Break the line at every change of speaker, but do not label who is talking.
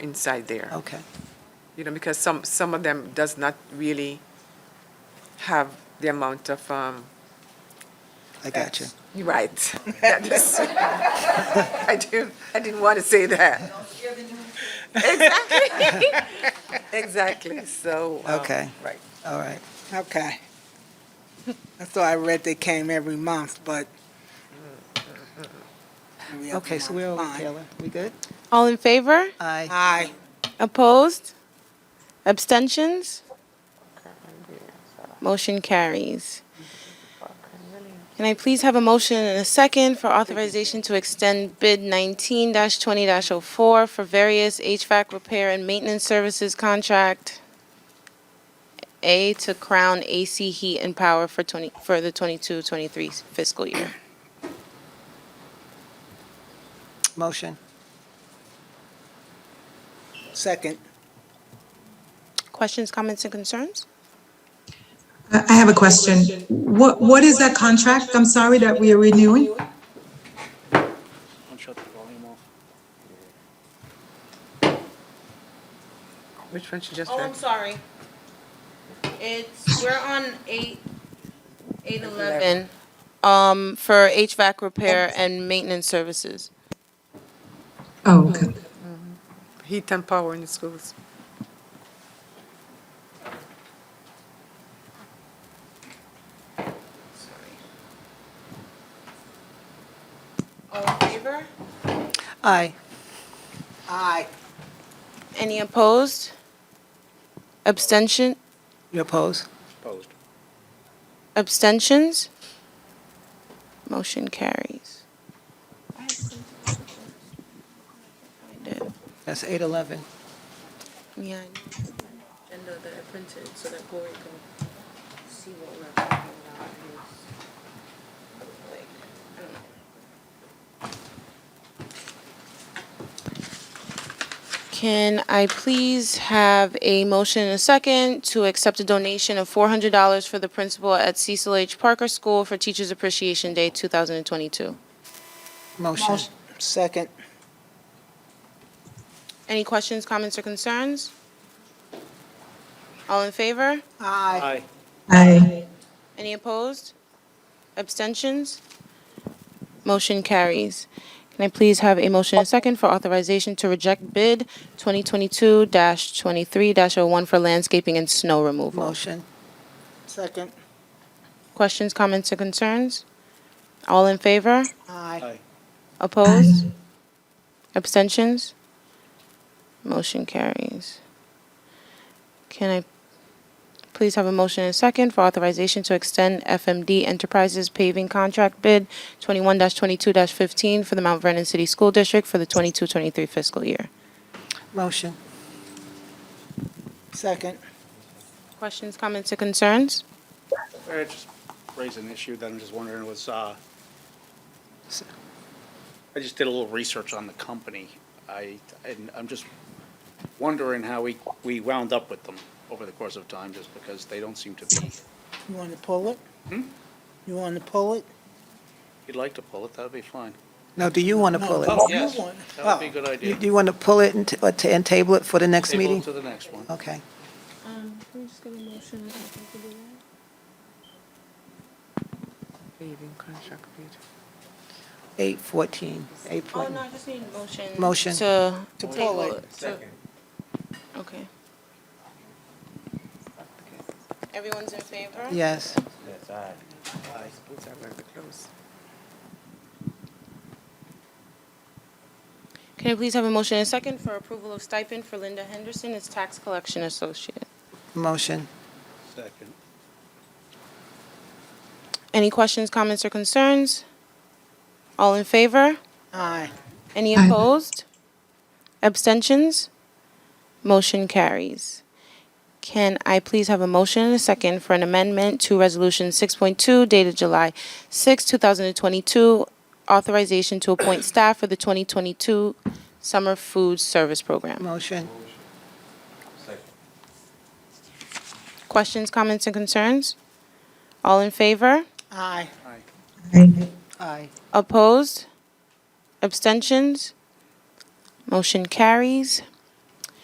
inside there,
Okay.
you know, because some, some of them does not really have the amount of, um,
I got you.
you're right. That is- I didn't, I didn't want to say that. Exactly, exactly, so. um,
Okay.
Right.
All right.
Okay. I thought I read they came every month, but. every other
Okay, so
month.
we're okay,
Fine.
Taylor. We good?
All in favor?
Aye.
Aye.
Opposed? Abstentions? Motion carries. Can I please have a motion and a second for authorization to extend bid 19-20-04 for various HVAC repair and maintenance services contract A to Crown AC Heat and Power for 20, for the 22-23 fiscal year?
Motion.
Second.
Questions, comments, and concerns?
I I have a question. What, what is that contract, I'm sorry, that we are renewing?
Don't shut the volume off.
Which one she just
Oh, I'm
read?
sorry. It's, we're on eight, eight eleven. Um, for HVAC repair and maintenance services.
Oh, okay.
Heat and power in the schools.
All in favor?
Aye.
Aye.
Any opposed? Abstention,
You oppose?
Opposed.
abstentions? Motion carries. Find it.
That's eight eleven.
Yeah. And the, the printed, so that Gloria can see what we're talking about Can I please have a motion and a second to accept a donation of four hundred dollars for the principal at Cecil H. Parker School for Teachers Appreciation Day two thousand and twenty-two?
Motion.
Second.
Any questions, comments, or concerns? All in favor?
Aye.
Aye.
Aye.
Any opposed? Abstentions? Motion carries. Can I please have a motion and second for authorization to reject bid 2022-23-01 for landscaping and snow removal?
Motion.
Second.
Questions, comments, or concerns? All in favor?
Aye.
Aye.
Opposed? Abstentions? Motion carries. Can I please have a motion and second for authorization to extend FMD Enterprises paving contract bid 21-22-15 for the Mount Vernon City School District for the 22-23 fiscal year?
Motion.
Second.
Questions, comments, or concerns?
I just raised an issue that I'm just wondering was, uh,
S-
I just did a little research on the company. I, and I'm just wondering how we, we wound up with them over the course of time, just because they don't seem to be. If
You want to pull it?
Hmm?
You want to pull it?
you'd like to pull it, that'd be fine.
No, do you want to pull
No.
it?
Oh, you
Yes,
want-
that would be a good
You-
idea.
Do you want to pull it and, t- or t- and table it for the next
Table it
meeting?
to the next one.
Okay.
Um, can we just get a motion?
Paving contract bid.
Eight fourteen. Eight
Oh,
fourteen.
no, I just need a motion.
Motion.
To.
To pull it.
Second. Okay. Everyone's in favor?
Yes.
I suppose I read the close.
Can I please have a motion and second for approval of stipend for Linda Henderson as tax collection associate?
Motion.
Second.
Any questions, comments, or concerns? All in favor?
Aye.
Any
Aye.
opposed? Abstentions? Motion carries. Can I please have a motion and a second for an amendment to Resolution 6.2 dated July 6, 2022, authorization to appoint staff for the 2022 Summer Food Service Program?
Motion.
Questions, comments, and concerns? All in favor?
Aye.
Aye.
Aye.
Opposed? Abstentions? Motion carries.